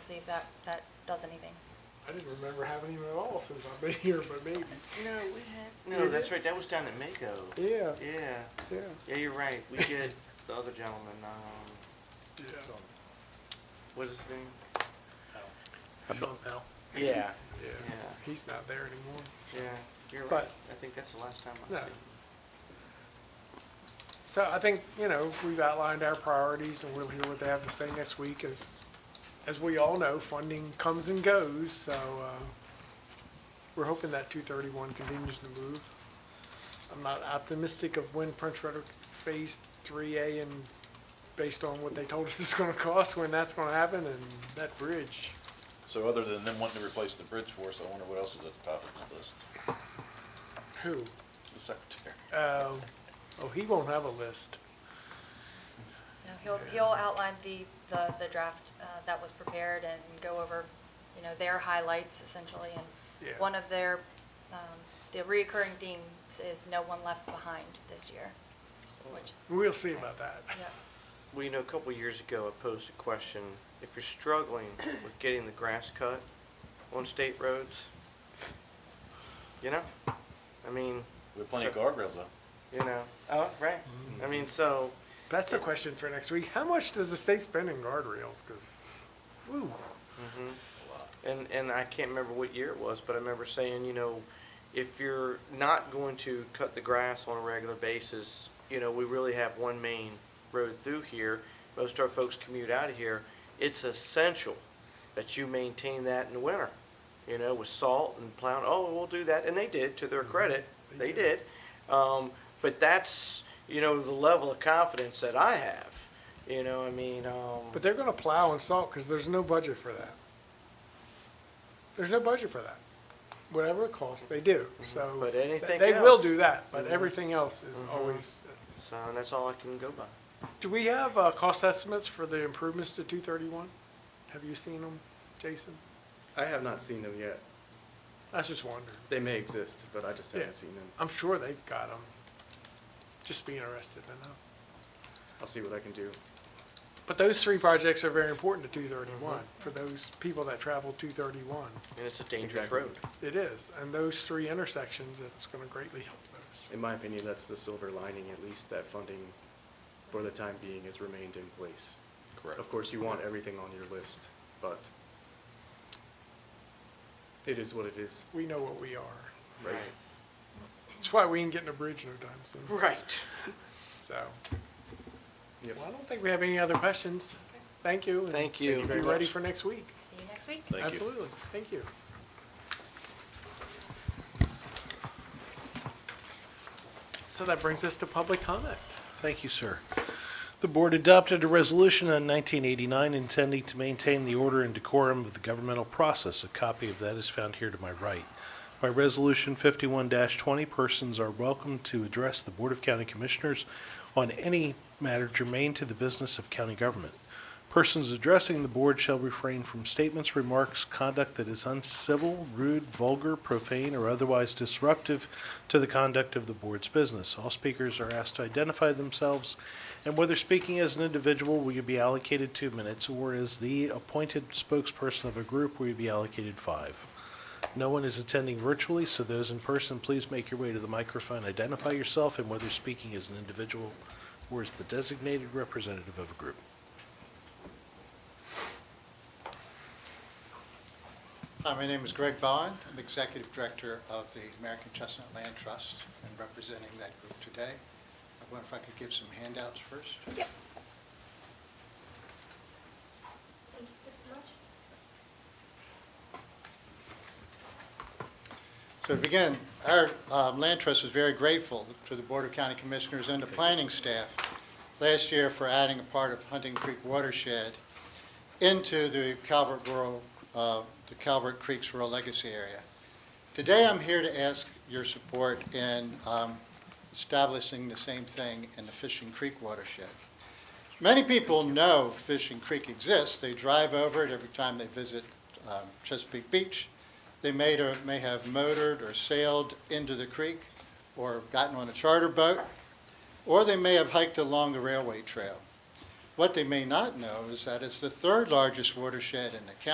see if that, that does anything. I didn't remember having him at all since I've been here, but maybe. No, we had, no, that's right, that was down at Mako. Yeah, Yeah, yeah, yeah, you're right, we did, the other gentleman, um, yeah, what's his name? Sean Powell. Yeah. yeah. Yeah. He's not there anymore. Yeah, you're right, But- I think that's the last time No. I've seen. So I think, you know, we've outlined our priorities and we'll hear what they have to say next week. As, as we all know, funding comes and goes, so, uh, we're hoping that two thirty-one continues to move. I'm not optimistic of when Prince Frederick Phase Three A and based on what they told us it's gonna cost, when that's gonna happen and that bridge. So other than them wanting to replace the bridge for us, I wonder what else is at the top of the list? Who? The secretary. Oh, oh, he won't have a list. You know, He'll, he'll outline the, the, the draft uh, that was prepared and go over, you know, their highlights essentially. And Yeah. one of their, um, the recurring themes is no one left behind this year, which, We'll see about that. yeah. Well, you know, a couple of years ago, I posed a question, if you're struggling with getting the grass cut on state roads, you know, I mean, We have plenty of So- guardrails though. you know, oh, right, I mean, so, That's a question for next week. How much does the state spend in guardrails? Because, ooh, Mm-hmm. And, and I can't remember what year it was, but I remember saying, you know, if you're not going to cut the grass on a regular basis, you know, we really have one main road through here. Most of our folks commute out of here. It's essential that you maintain that in the winter, you know, with salt and plowing. Oh, we'll do that. And they did, to their credit, They Mm-hmm. they did. did. Um, but that's, you know, the level of confidence that I have, you know, I mean, um, but they're going to plow and salt because there's no budget for that. There's no budget for that. Whatever it costs, they do. So Mm-hmm. But th- anything they will else. do that. But Mhm. everything else is always. uh, so that's all I can go by. Do we have uh, cost estimates for the improvements to 231? Have you seen them, Jason? I have not seen them yet. I was just wondering. They may exist, but I just Yeah. haven't seen them. I'm sure they've got them. Just be interested to know. I'll see what I can do. But those three projects are very important to 231, for those people that travel 231. And it's a dangerous Exactly. road. It is, and those three intersections, it's going to greatly help those. In my opinion, that's the silver lining, at least that funding for the time being has remained in place. Correct. Of course, you want everything on your list, but it is what it is. We know what we are. Right. That's why we ain't getting a bridge no time soon, Right. so. Yep. Well, I don't think we have any other questions. Thank you. and Thank you. Be very ready much. for next week. See you next week. Thank you. Absolutely, thank you. So that brings us to public comment. Thank you, sir. The board adopted a resolution in 1989 intending to maintain the order and decorum of the governmental process. A copy of that is found here to my right. By Resolution 51-20, persons are welcome to address the Board of County Commissioners on any matter germane to the business of county government. Persons addressing the board shall refrain from statements, remarks, conduct that is uncivil, rude, vulgar, profane, or otherwise disruptive to the conduct of the board's business. All speakers are asked to identify themselves, and whether speaking as an individual, will you be allocated two minutes, or as the appointed spokesperson of a group, will you be allocated five? No one is attending virtually, so those in person, please make your way to the microphone, identify yourself, and whether speaking as an individual or as the designated representative of a group. Hi, Uh, my name is Greg Bond. I'm Executive Director of the American Chestnut Land Trust and representing that group today. I wonder if I could give some handouts first? Yep. Thank you so much. So to begin, our um, land trust is very grateful to the Board of County Commissioners and the planning staff last year for adding a part of Hunting Creek watershed into the Calvert Rural, uh, the Calvert Creeks Rural Legacy Area. Today, I'm here to ask your support in um, establishing the same thing in the Fishing Creek watershed. Many people know Fishing Creek exists. They drive over it every time they visit um, Chesapeake Beach. They may, or may have motored or sailed into the creek or gotten on a charter boat, or they may have hiked along the railway trail. What they may not know is that it's the third largest watershed in the county.